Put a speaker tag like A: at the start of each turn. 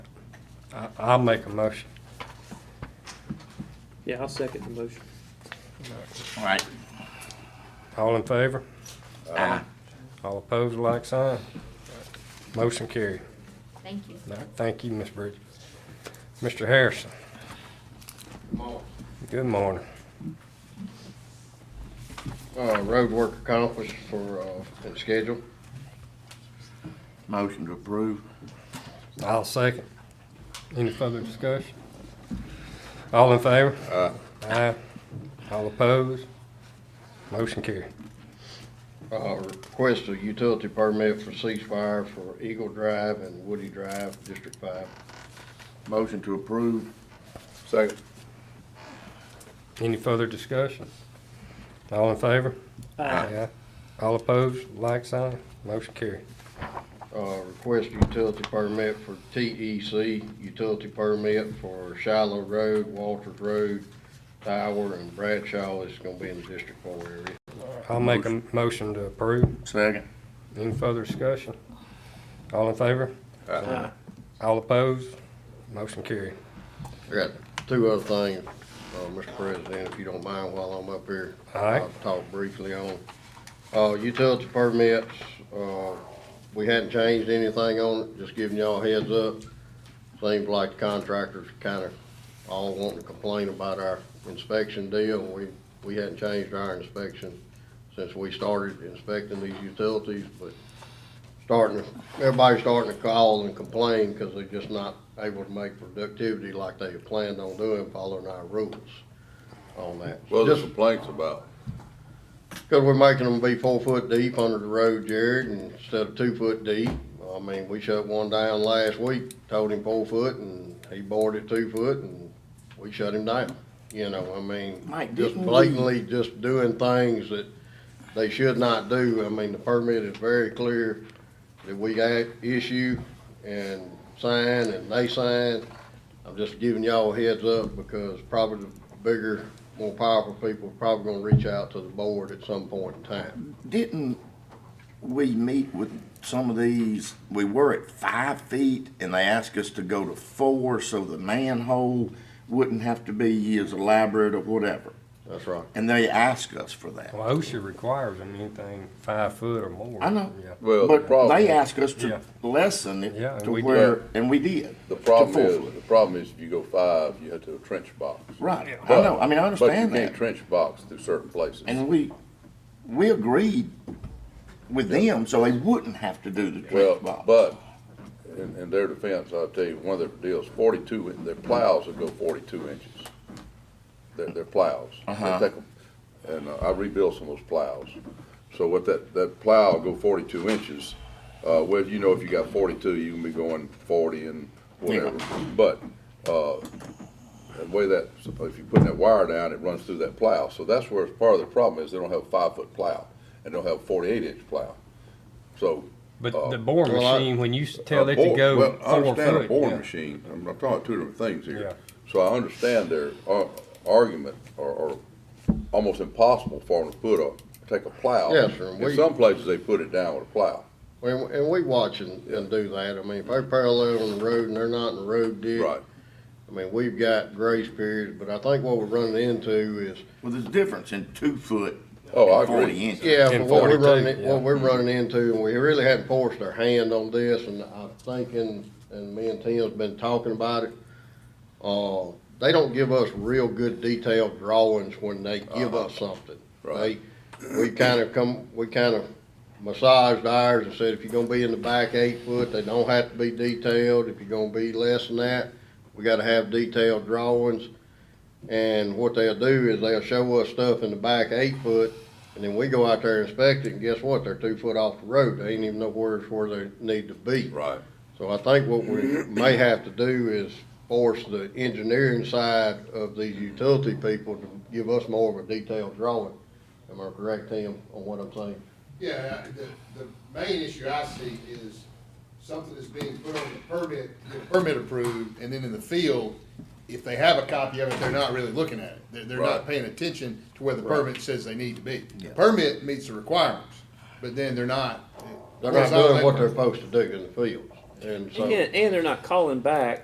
A: I, I'll make a motion.
B: Yeah, I'll second the motion.
C: All right. Uh,
A: All in favor?
C: Aye.
A: All opposed, like sign. Motion carried.
D: Thank you.
A: All right, Thank you, Ms. Bridges. Mr. Harrison. Good morning.
E: Uh, road work accomplished for, uh, its schedule.
C: Motion to approve.
A: I'll second. Any further discussion? All in favor? Aye. All opposed? Motion carried.
E: Uh, request a utility permit for ceasefire for Eagle Drive and Woody Drive, District Five.
C: Motion to approve.
E: Second.
A: Any further discussion? All in favor?
B: Aye.
A: All opposed, like sign. Motion carried.
E: Uh, request a utility permit for TEC, utility permit for Shiloh Road, Walters Road, Tower, and Bradshaw. It's gonna be in the District Four area.
A: I'll make a motion to approve.
C: Second.
A: Any further discussion? All in favor?
B: Uh,
A: All opposed? Motion carried.
E: I got two other things, uh, Mr. President, if you don't mind while I'm up here.
A: All right.
E: I'll Talk briefly on, uh, utility permits, uh, we hadn't changed anything on it, just giving y'all a heads up. Seems like the contractors kinda all wanting to complain about our inspection deal, we, we hadn't changed our inspection since we started inspecting these utilities, but starting, to- everybody's starting to call and complain because they're just not able to make productivity like they had planned on doing, following our rules on that.
F: What's the
E: Just
F: complaints about?
E: because we're making them be four foot deep under the road, Jared, and instead of two foot deep. I mean, we shut one down last week, told him four foot, and he bored it two foot, and we shut him down. You know, I mean,
C: Mike,
E: just
C: didn't we-
E: blatantly just doing things that they should not do. I mean, the permit is very clear that we got issue and sign and they sign. I'm just giving y'all a heads up because probably the bigger, more powerful people are probably gonna reach out to the board at some point in time.
C: Didn't we meet with some of these, we were at five feet and they asked us to go to four so the manhole wouldn't have to be as elaborate or whatever.
E: That's right.
C: And they asked us for that.
A: Well, OSHA requires them anything five foot or more.
C: I know.
A: Yeah.
F: Well, the
C: But they
F: problem,
C: asked us
A: Yeah.
C: to lessen it
A: Yeah, and
C: to
A: we did.
C: where, and we did.
F: the
C: to
F: problem
C: four
F: is,
C: foot.
F: the problem is if you go five, you have to have trench box.
C: Right, I
F: But-
C: know, I mean, I understand
F: But you can't
C: that.
F: trench box through certain places.
C: And we, we agreed with them, so they wouldn't have to do the
F: Well,
C: trench box.
F: but, in, in their defense, I'll tell you, one of their deals, forty-two, in- their plows will go forty-two inches. Their, their plows. They
C: Uh-huh.
F: take 'em- And uh, I rebuilt some of those plows. So with that, that plow go forty-two inches, uh, well, you know, if you got forty-two, you can be going forty and whatever. But, uh, the way that, if you put that wire down, it runs through that plow. So that's where it's part of the problem is they don't have a five-foot plow and don't have a forty-eight inch plow. So
A: But the boring
E: well, I-
A: machine, when you s- tell
F: a
A: it to
F: bore-
A: go
F: uh, Well, I
A: four
F: understand a
A: foot.
F: boring
A: yeah.
F: machine, I'm, I'm talking two different things
A: Yeah.
F: here. So I understand their ar- argument, or, or almost impossible for them to put a, take a plow.
E: Yes, sir,
F: In
E: we-
F: some places, they put it down with a plow.
E: And, and we watch and, and do that. I mean, if they're parallel on the road and they're not in the road ditch.
F: Right.
E: I mean, we've got grace periods, but I think what we're running into is
C: Well, there's a difference in two foot
F: Oh, I
C: and forty
F: agree.
C: inches.
E: Yeah,
A: In
E: but what we're
A: 42,
E: running,
A: yeah.
E: what we're running into, and we really hadn't forced our hand on this, and I'm thinking, and me and Tim's been talking about it. Uh, they don't give us real good detailed drawings when they give us something. They,
F: Right.
E: we kind of come, we kind of massaged ours and said, if you're gonna be in the back eight foot, they don't have to be detailed. If you're gonna be less than that, we gotta have detailed drawings. And what they'll do is they'll show us stuff in the back eight foot, and then we go out there and inspect it, and guess what? They're two foot off the road. They ain't even know where it's where they need to be.
F: Right.
E: So I think what we may have to do is force the engineering side of these utility people to give us more of a detailed drawing. Am I correct, Tim, on what I'm saying?
G: Yeah, I- the, the main issue I see is something that's being put on the permit, the permit approved, and then in the field, if they have a copy of it, they're not really looking at it. They're, they're
F: Right.
G: not paying attention to where the permit says they need to be.
C: Yeah.
G: Permit meets the requirements, but then they're not.
E: They're not doing what they're supposed to do in the fields, and so.
B: Yeah, and they're not calling back